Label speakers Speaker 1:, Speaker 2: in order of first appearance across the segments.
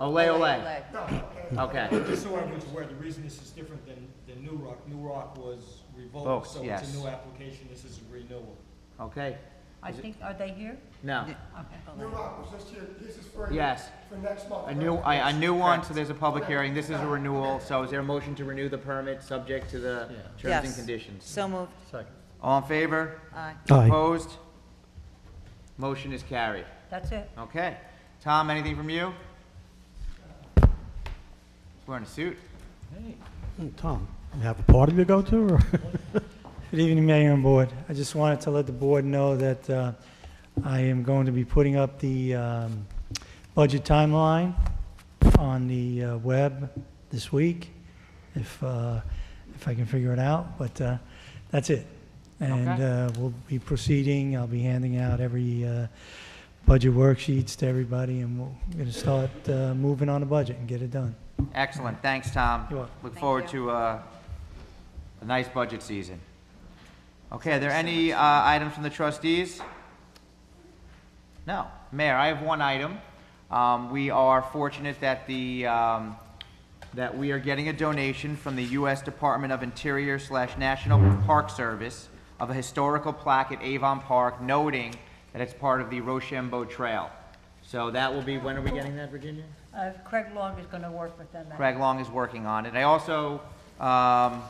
Speaker 1: Olay, olay.
Speaker 2: Olay.
Speaker 3: No, okay.
Speaker 1: Okay.
Speaker 3: Just so everyone's aware, the reason this is different than, than New Rock, New Rock was revoked,
Speaker 1: Folks,
Speaker 3: so
Speaker 1: yes.
Speaker 3: it's a new application, this is a renewal.
Speaker 1: Okay.
Speaker 2: I
Speaker 1: Is it-
Speaker 2: think, are they here?
Speaker 1: No.
Speaker 3: Okay.
Speaker 2: Olay.
Speaker 3: New Rock was
Speaker 4: This year, this is for.
Speaker 1: Yes.
Speaker 4: For next month.
Speaker 1: A new, a, a new one, so there's a public hearing. This is a renewal, so is there a motion to renew the permit subject to the terms and
Speaker 2: Yes.
Speaker 1: conditions?
Speaker 2: So moved.
Speaker 1: All in favor?
Speaker 2: Aye.
Speaker 1: Opposed? Motion is carried.
Speaker 2: That's it.
Speaker 1: Okay. Tom, anything from you? Wearing a suit.
Speaker 5: Tom, you have a party to go to? or-
Speaker 6: Good evening, Mayor and Board. I just wanted to let the Board know that uh, I am going to be putting up the um, budget timeline on the uh, web this week, if, uh, if I can figure it out, but uh, that's it. And
Speaker 1: Okay.
Speaker 6: uh, we'll be proceeding, I'll be handing out every uh, budget worksheets to everybody, and we're going to start uh, moving on the budget and get it done.
Speaker 1: Excellent. Thanks, Tom.
Speaker 6: You're welcome.
Speaker 1: Look
Speaker 2: Thank
Speaker 1: forward
Speaker 2: you.
Speaker 1: to uh, a nice budget season. Okay, are there any uh, items from the trustees? No. Mayor, I have one item. Um, We are fortunate that the, um, that we are getting a donation from the U.S. Department of Interior slash National Park Service of a historical plaque at Avon Park noting that it's part of the Rochambeau Trail. So that will be, when are we getting that, Virginia?
Speaker 2: Uh, Craig Long is going to work with them. I-
Speaker 1: Craig Long is working on it. I also, um,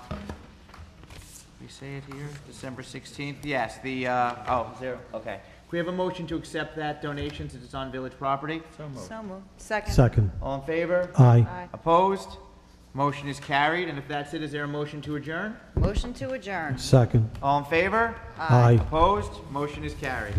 Speaker 1: we say it here, December 16th, yes, the, uh, oh, is there, okay. Can we have a motion to accept that donation since it's on village property?
Speaker 2: So moved. Second.
Speaker 5: Second.
Speaker 1: All in favor?
Speaker 5: Aye.
Speaker 1: Opposed? Motion is carried, and if that's it, is there a motion to adjourn?
Speaker 2: Motion to adjourn.
Speaker 5: Second.
Speaker 1: All in favor?
Speaker 5: Aye.
Speaker 1: Opposed? Motion is carried.